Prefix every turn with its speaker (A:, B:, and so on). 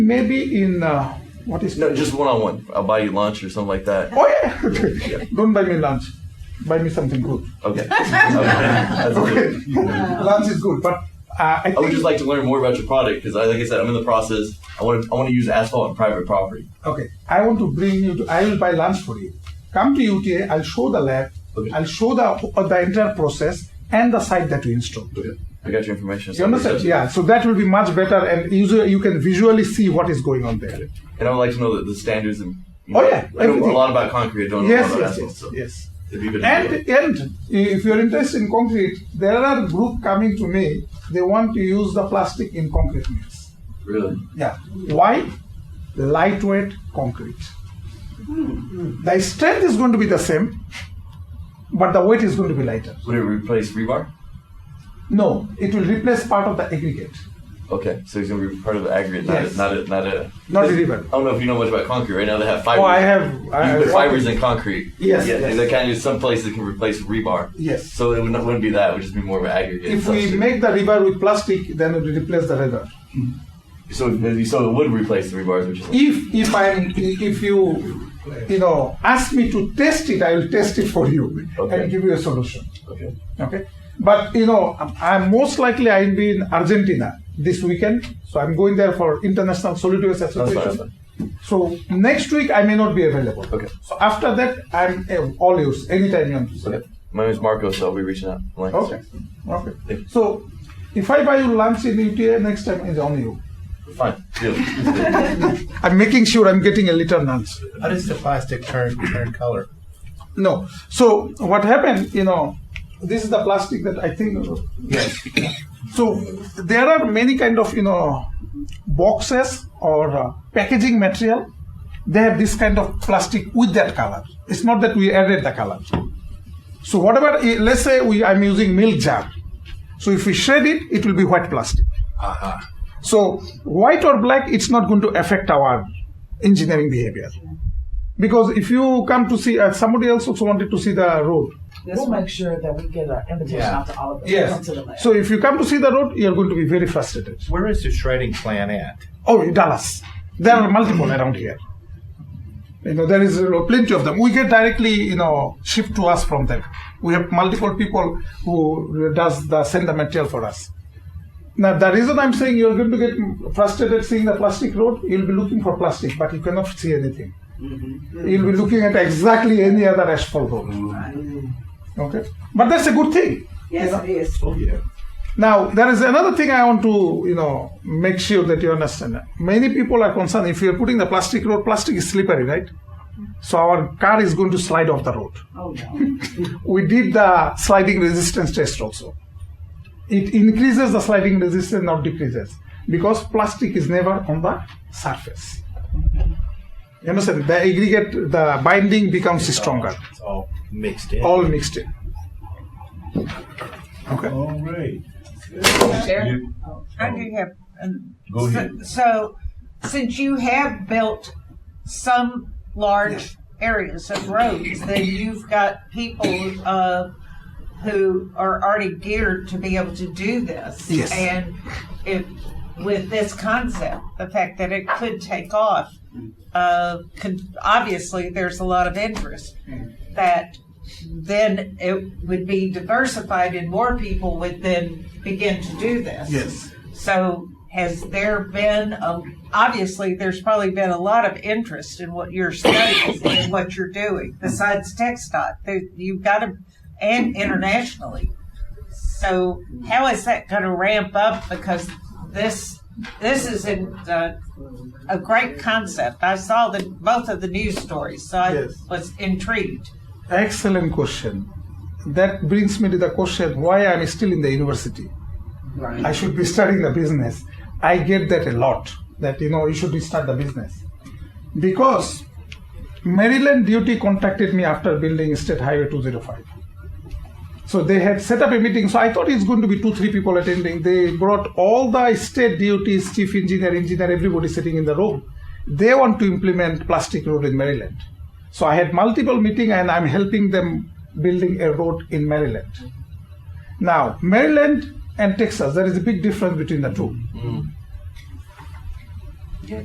A: Maybe in uh, what is
B: No, just one on one. I'll buy you lunch or something like that.
A: Oh yeah. Don't buy me lunch. Buy me something good.
B: Okay. okay. That's
A: Okay.
B: good.
A: lunch is good, but uh, I
B: I would
A: think
B: just like to learn more about your product because, like I said, I'm in the process. I want to I want to use asphalt on private property.
A: okay. I want to bring you. to I will buy lunch for you. Come to UTA. I'll show the lab.
B: Okay.
A: I'll show the uh, the entire process and the site that we install.
B: Okay. I got your information.
A: You understand? Yeah. So that will be much better, and user you can visually see what is going on there.
B: And I would like to know the, the standards and. You
A: Oh,
B: know,
A: yeah,
B: I know
A: everything.
B: a lot about concrete. I don't know a
A: Yes,
B: lot about
A: yes,
B: asphalt.
A: yes, yes.
B: so It'd be a bit of a-
A: And and if you're interested in concrete, there are group coming to me. They want to use the plastic in concrete mix.
B: really.
A: Yeah. Why? Lightweight concrete. The strength is going to be the same, but the weight is going to be lighter.
B: Would it replace rebar?
A: No, it will replace part of the aggregate.
B: Okay, so it's gonna be part of the aggregate, not
A: Yes.
B: a, not a, not a.
A: Not a
B: because-
A: river.
B: I don't know if you know much about concrete. Right now they have fibers.
A: Oh, I have. I
B: You
A: have
B: put fibers in concrete.
A: Yes,
B: Yeah,
A: yes.
B: And they kind of some places that can replace rebar.
A: Yes.
B: So it wouldn't, wouldn't be that. It would just be more of an aggregate.
A: If we
B: substrate.
A: make the river with plastic, then it will replace the river.
B: so so it would replace the rebars, which is
A: If if I'm if you you know ask me to test it, I will test it for you
B: Okay.
A: and give you a solution.
B: okay.
A: Okay. But you know, I'm- I'm most likely I'll be in Argentina this weekend, so I'm going there for International Solid Waste
B: That's fine.
A: Association.
B: That's fine.
A: So next week I may not be available.
B: Okay.
A: So after that, I'm eh, all yours anytime you want. to.
B: Okay. My name is Marco, so I'll be reaching out. Like,
A: Okay. Okay.
B: Thank you.
A: So if I buy you lunch in UTA next time, it's on you.
B: Fine. Deal.
A: I'm making sure I'm getting a little lunch.
C: How does the plastic turn turn color?
A: No. So what happened, you know, this is the plastic that I think. Yes. so there are many kind of you know boxes or uh, packaging material. They have this kind of plastic with that color. It's not that we added the color. So whatever, eh, let's say we I'm using milk jar. So if we shred it, it will be white plastic. So white or black, it's not going to affect our engineering behavior. Because if you come to see, uh, somebody else also wanted to see the road.
D: Let's make sure that we get an invitation
C: Yeah.
D: out to all of us. Come to the lab.
A: So if you come to see the road, you're going to be very frustrated.
C: Where is the shredding plant at?
A: Oh, in Dallas. There are multiple around here. You know, there is uh, plenty of them. We get directly, you know, shipped to us from them. We have multiple people who does the send the material for us. Now, the reason I'm saying you're going to get frustrated seeing the plastic road, you'll be looking for plastic, but you cannot see anything. You'll be looking at exactly any other asphalt road. Okay, but that's a good thing.
D: yes, it is.
A: Now, there is another thing I want to, you know, make sure that you understand. Many people are concerned if you're putting the plastic road, plastic is slippery, right? So our car is going to slide off the road.
D: Oh no.
A: We did the sliding resistance test also. It increases the sliding resistance, not decreases, because plastic is never on the surface. You understand? The aggregate, the binding becomes stronger,
C: It's all mixed in.
A: all mixed in. Okay.
E: All right. You-
D: Oh.
F: I do have. um,
E: Go
F: so-
E: ahead.
F: So, since you have built some large areas of roads, then you've got people uh, who are already geared to be able to do this.
A: Yes.
F: And if, with this concept, the fact that it could take off, uh, could, obviously, there's a lot of interest that then it would be diversified and more people would then begin to do this.
A: Yes.
F: So has there been, um, obviously, there's probably been a lot of interest in what you're studying and what you're doing, besides TechStot. There- You've got to, and internationally. So how is that going to ramp up? Because this, this is in, uh, a great concept. I saw the, both of the news stories, so I
A: Yes.
F: was intrigued.
A: Excellent question. That brings me to the question why I'm still in the university.
D: Right.
A: I should be studying the business. I get that a lot that you know you should start the business. Because Maryland Duty contacted me after building State Highway 205. So they had set up a meeting. So I thought it's going to be two, three people attending. They brought all the state duties, chief engineer, engineer, everybody sitting in the room. They want to implement plastic road in Maryland. So I had multiple meeting and I'm helping them building a road in Maryland. Now, Maryland and Texas, there is a big difference between the two.